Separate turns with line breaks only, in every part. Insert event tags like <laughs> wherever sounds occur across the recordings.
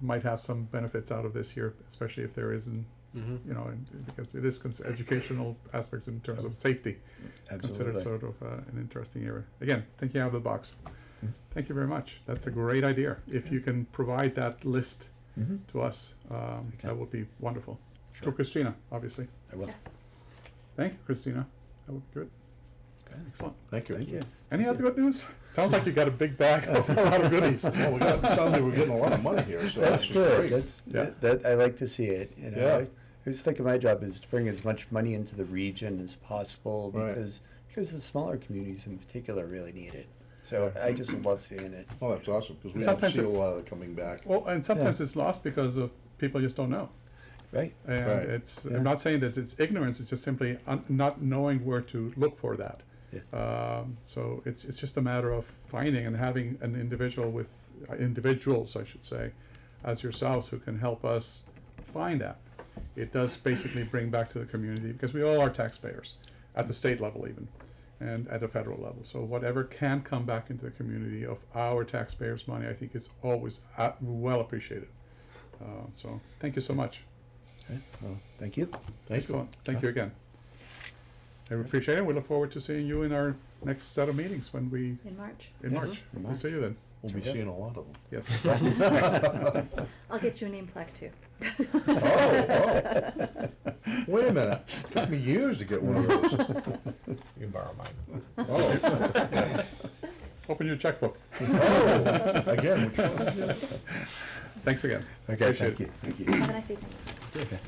might have some benefits out of this here, especially if there is, an-
Mm-hmm.
you know, and- because it is cons- educational aspects in terms of safety.
Absolutely.
Considered sort of uh, an interesting area. Again, thinking out of the box.
Mm.
Mm-hmm.
Thank you very much. That's a great idea. If you can provide that list
Mm-hmm.
Mhm.
to us, um,
Okay.
that would be wonderful. For
Sure.
Christina, obviously.
I will.
Yes.
Thank you, Christina. That would be good.
Okay.
Excellent.
Thank you.
Thank you.
Any other good news? Sounds like you got a big bag of a lot of goodies.
<laughs> Well, we got- sounds like we're getting a lot of money here, so
That's
this is
good.
great.
That's,
Yeah.
that, that- I like to see it, you know.
Yeah.
I always think of my job is to bring as much money into the region as possible
Right.
because, because the smaller communities in particular really need it. So
Yeah.
I just love seeing it.
Well, Oh, that's awesome, because we don't
Sometimes
see a
it-
lot of it coming back.
Well, and sometimes it's lost because of people just don't know.
Right.
And
Right.
it's
Yeah.
I'm not saying that it's ignorance. It's just simply un- not knowing where to look for that.
Yeah.
Um, so it's it's just a matter of finding and having an individual with uh, individuals, I should say, as yourselves who can help us find that. It does basically bring back to the community because we all are taxpayers at the state level even and at the federal level. So whatever can come back into the community of our taxpayers' money, I think is always uh, well appreciated. Uh, so thank you so much.
Right. Well, thank you.
Thank you.
Excellent. Thank you again. I appreciate it. We look forward to seeing you in our next set of meetings when we,
In March.
in
Yes,
March.
in
We'll
March.
see you then.
We'll be
Sure.
seeing a lot of them. <laughs>
Yes.
I'll get you a name plaque too.
Oh, Wait a minute, took me years to get one of
<laughs>
those.
You can borrow mine.
Oh.
<laughs> Open your checkbook.
Oh, again, which one?
<laughs> Thanks again.
<laughs> Okay,
Appreciate
thank
it.
you. Thank
Have a
you.
nice evening.
Okay.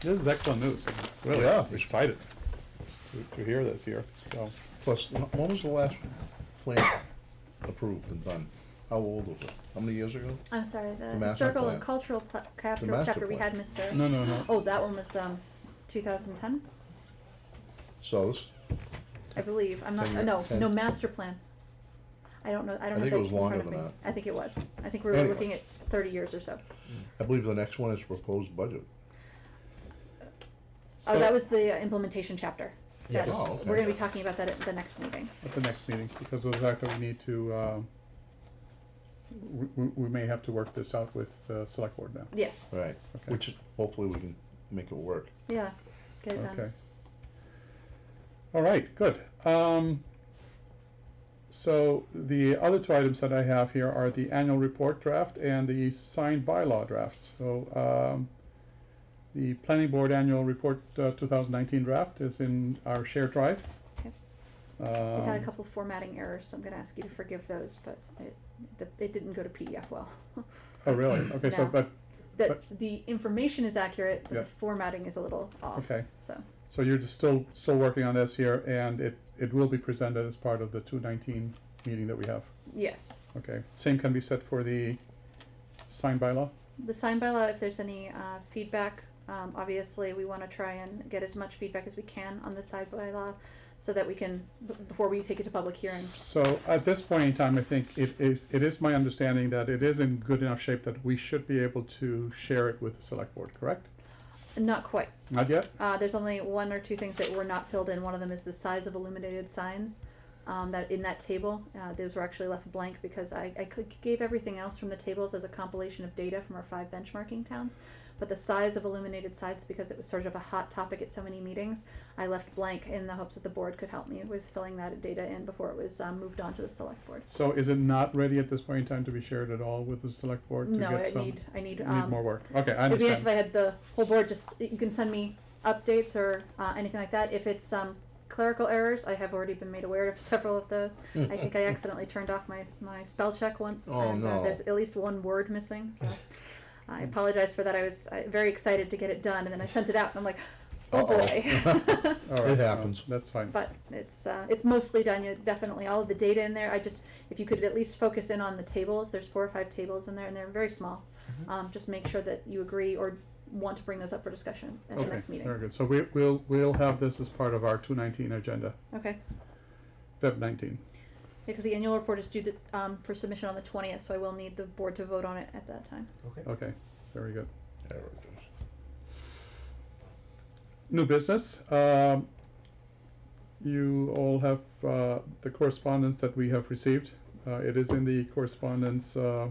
This is excellent news. Really,
Yeah.
excited to- to hear this here, so.
Plus, wh- when was the last plan approved and done? How old was it? How many years ago?
I'm sorry, the
master
historical
plan.
and cultural pla-
The
chapter,
master
chapter we
plan.
had, Mr.
No, no, no.
Oh, that one was, um, two thousand ten,
So this,
I believe. I'm not,
Ten
uh,
year-
no,
ten.
no, master plan. I don't know,
I
I don't have
think it
that in
was
front
longer
of me.
than that.
I think it was. I think we were
Anyway.
looking at s- thirty years or so.
I believe the next one is proposed budget.
Oh,
So,
that was the uh, implementation chapter.
Yes.
That's-
Oh, okay.
We're gonna be talking about that at the next meeting.
At the next meeting, because of the fact that we need to, um, we, we we may have to work this out with the select board now.
Yes,
Right.
Okay.
Which hopefully we can make it work.
yeah, get it
Okay.
done.
All right, good. Um, so the other two items that I have here are the annual report draft and the signed bylaw draft. So, um, the planning board annual report, uh, two thousand nineteen draft is in our shared drive.
Okay. It had a
Um,
couple formatting errors, so I'm gonna ask you to forgive those, but it, the- it didn't go to PDF well.
oh,
<clears throat>
really? Okay, so,
No.
but,
<laughs> The, the information is accurate, but
Yeah.
the formatting is a little off,
Okay.
so,
so you're just still, still working on this here and it, it will be presented as part of the two nineteen meeting that we have.
yes.
Okay, same can be said for the signed bylaw?
The sign bylaw, if there's any, uh, feedback, um, obviously, we wanna try and get as much feedback as we can on the side bylaw, so that we can, b- before we take it to public hearing.
So at this point in time, I think it, it, it is my understanding that it is in good enough shape that we should be able to share it with the select board, correct?
Not quite,
Not yet?
Uh, there's only one or two things that were not filled in. One of them is the size of illuminated signs. Um, that in that table, uh, those were actually left blank because I, I could- gave everything else from the tables as a compilation of data from our five benchmarking towns. But the size of illuminated sites, because it was sort of a hot topic at so many meetings, I left blank in the hopes that the board could help me with filling that data in before it was um, moved on to the select board.
So is it not ready at this point in time to be shared at all with the select board? to
No,
get
I
some-
need I need,
you
um,
more work. Okay, I
It'd be nice if
understand.
I had the whole board, just, you can send me updates or, uh, anything like that, if it's, um, clerical errors, I have already been made aware of <laughs> several of those. I think
<laughs>
I accidentally turned off my, my spell check once,
Oh,
and uh,
no.
there's at least one word missing,
<laughs>
so. I apologize for that, I was, uh very excited to get it done, and then I sent it out, and I'm like, oh
Uh-oh. <laughs> Oh,
boy.
<laughs>
<laughs>
All right,
It
no,
happens.
That's fine.
But it's, uh, it's mostly done, you definitely, all of the data in there, I just, if you could at least focus in on the tables, there's four or five tables in there, and they're very small. Um, just make sure that you agree or want to bring those up for discussion at the
Okay,
next
very
meeting.
good. So we, we'll, we'll have this as part of our two nineteen agenda,
Okay,
Feb nineteen.
because the annual report is due the, um, for submission on the twentieth, so I will need the board to vote on it at that time.
Okay.
Okay, very good.
There it is.
New business. Um, you all have uh, the correspondence that we have received. Uh, it is in the correspondence uh,